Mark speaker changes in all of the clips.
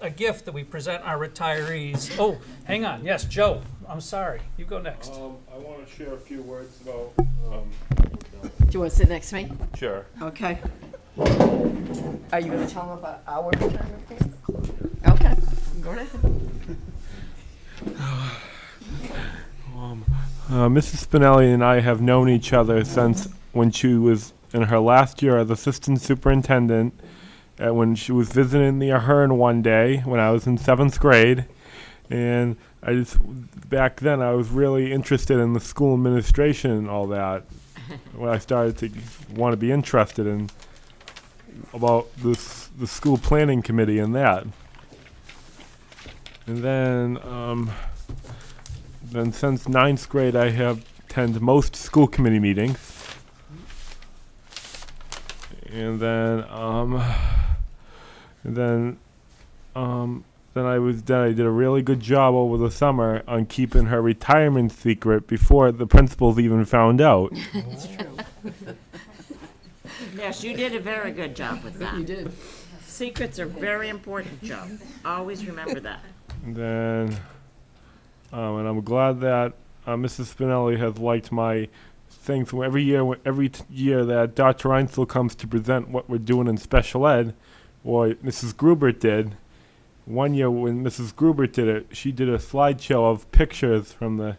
Speaker 1: a gift that we present our retirees. Oh, hang on, yes, Joe, I'm sorry, you go next.
Speaker 2: Um, I want to share a few words about, um.
Speaker 3: Do you want to sit next to me?
Speaker 2: Sure.
Speaker 3: Okay. Are you going to tell them about our retirement plans? Okay, go right ahead.
Speaker 2: Uh, Mrs. Spinelli and I have known each other since when she was in her last year as assistant superintendent. And when she was visiting the Ahern one day when I was in seventh grade, and I just back then I was really interested in the school administration and all that. when I started to want to be interested in about this the school planning committee and that. And then um, then since ninth grade, I have attended most school committee meetings. And then, um, and then, um, then I was then I did a really good job over the summer on keeping her retirement secret before the principals even found out.
Speaker 4: Yes, you did a very good job with that.
Speaker 3: You did.
Speaker 4: Secrets are very important, Joe. Always remember that.
Speaker 2: And then, um, and I'm glad that uh, Mrs. Spinelli has liked my thing. So every year, wh- every t- year that Dr. Einzel comes to present what we're doing in special ed, or Mrs. Gruber did. One year when Mrs. Gruber did it, she did a slideshow of pictures from the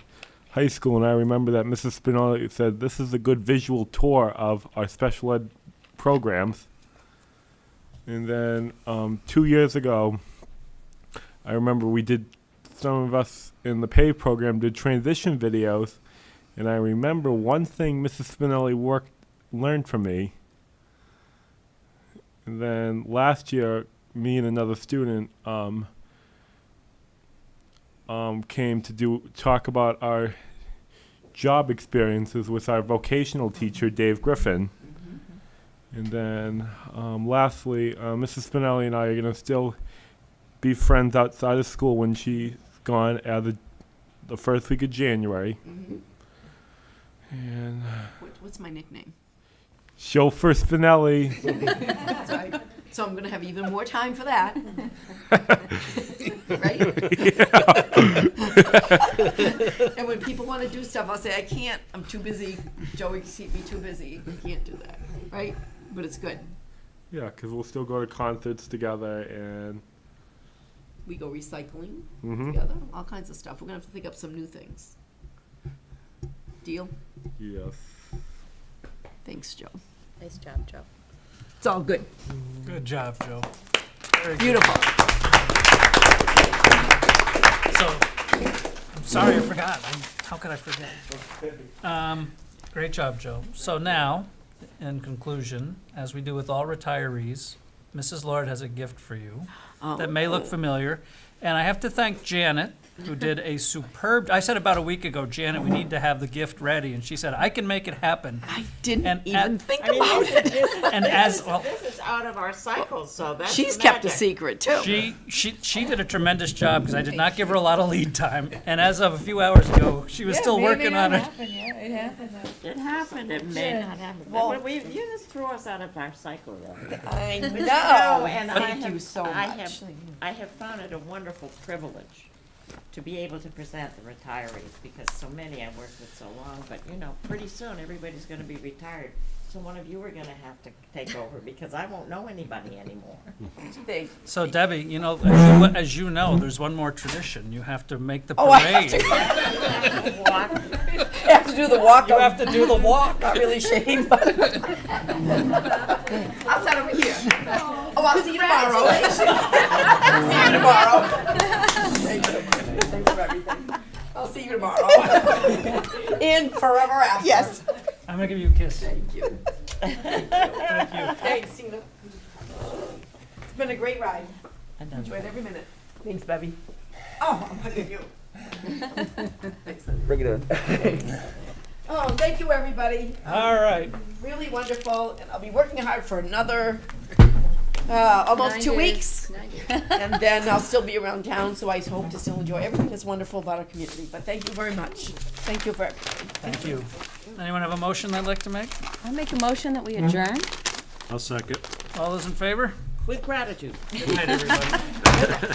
Speaker 2: high school, and I remember that Mrs. Spinelli said, "This is a good visual tour of our special ed programs." And then um, two years ago, I remember we did some of us in the pay program did transition videos, and I remember one thing Mrs. Spinelli worked learned from me. And then last year, me and another student um, um, came to do talk about our job experiences with our vocational teacher Dave Griffin. And then, um, lastly, uh, Mrs. Spinelli and I are gonna still be friends outside of school when she's gone out of the first week of January.
Speaker 3: Mm-hmm.
Speaker 2: And
Speaker 3: What- What's my nickname?
Speaker 2: chauffeur Spinelli.
Speaker 3: So I- so I'm going to have even more time for that. Right? And when people want to do stuff, I'll say, I can't, I'm too busy. Joey can keep me too busy. I can't do that, right? But it's good.
Speaker 2: yeah, because we'll still go to concerts together and.
Speaker 3: We go recycling
Speaker 2: Mm-hmm.
Speaker 3: together, all kinds of stuff. We're going to have to think up some new things. Deal?
Speaker 2: Yes.
Speaker 3: Thanks, Joe.
Speaker 5: Nice job, Joe.
Speaker 3: It's all good.
Speaker 1: Good job, Joe.
Speaker 3: Beautiful.
Speaker 1: So, I'm sorry I forgot. I- How could I forget? Um, Great job, Joe. So now, in conclusion, as we do with all retirees, Mrs. Lord has a gift for you that may look familiar. And I have to thank Janet, who did a superb, I said about a week ago, Janet, we need to have the gift ready. And she said, I can make it happen.
Speaker 3: I didn't
Speaker 1: And
Speaker 3: even
Speaker 1: at-
Speaker 3: think
Speaker 4: I mean,
Speaker 3: about
Speaker 4: this
Speaker 3: it.
Speaker 4: is, this is,
Speaker 1: And as, well,
Speaker 4: this is out of our cycle, so that's
Speaker 3: She's kept a
Speaker 4: magic.
Speaker 3: secret too.
Speaker 1: She, she, she did a tremendous job because I did not give her a lot of lead time. And as of a few hours ago, she was still working on it.
Speaker 6: Yeah, it happened.
Speaker 4: It happened, it may not happen. But we, you just threw us out of our cycle, though.
Speaker 3: I
Speaker 4: No, and I
Speaker 3: Thank you
Speaker 4: have-
Speaker 3: so
Speaker 4: I
Speaker 3: much.
Speaker 4: have- I have found it a wonderful privilege to be able to present the retirees, because so many I've worked with so long, but you know, pretty soon, everybody's gonna be retired. So one of you are gonna have to take over, because I won't know anybody anymore.
Speaker 3: They-
Speaker 1: So Debbie, you know, as you, as you know, there's one more tradition. You have to make the parade.
Speaker 3: Oh, I have
Speaker 4: Walk
Speaker 3: I have to do the walk.
Speaker 1: You have to do the walk.
Speaker 3: Not really shame, but. Outside over here. Oh, I'll see you tomorrow. See you tomorrow. Thank you. Thanks for everything. I'll see you tomorrow. And forever after. Yes.
Speaker 1: I'm gonna give you a kiss.
Speaker 3: Thank you.
Speaker 1: Thank you.
Speaker 3: Thanks, Tina. It's been a great ride.
Speaker 4: another
Speaker 3: Enjoyed every minute. Thanks, Bevy. Oh, I'm hugging you. Thanks.
Speaker 7: Bring it in.
Speaker 3: Oh, thank you, everybody.
Speaker 1: All right.
Speaker 3: Really wonderful, and I'll be working hard for another, uh, almost two weeks. And then I'll still be around town, so I hope to still enjoy everything that's wonderful about our community. But thank you very much. Thank you for everything.
Speaker 1: Thank you. Anyone have a motion they'd like to make?
Speaker 6: I make a motion that we adjourn.
Speaker 1: All those in favor?
Speaker 4: With gratitude.
Speaker 1: Good night, everybody.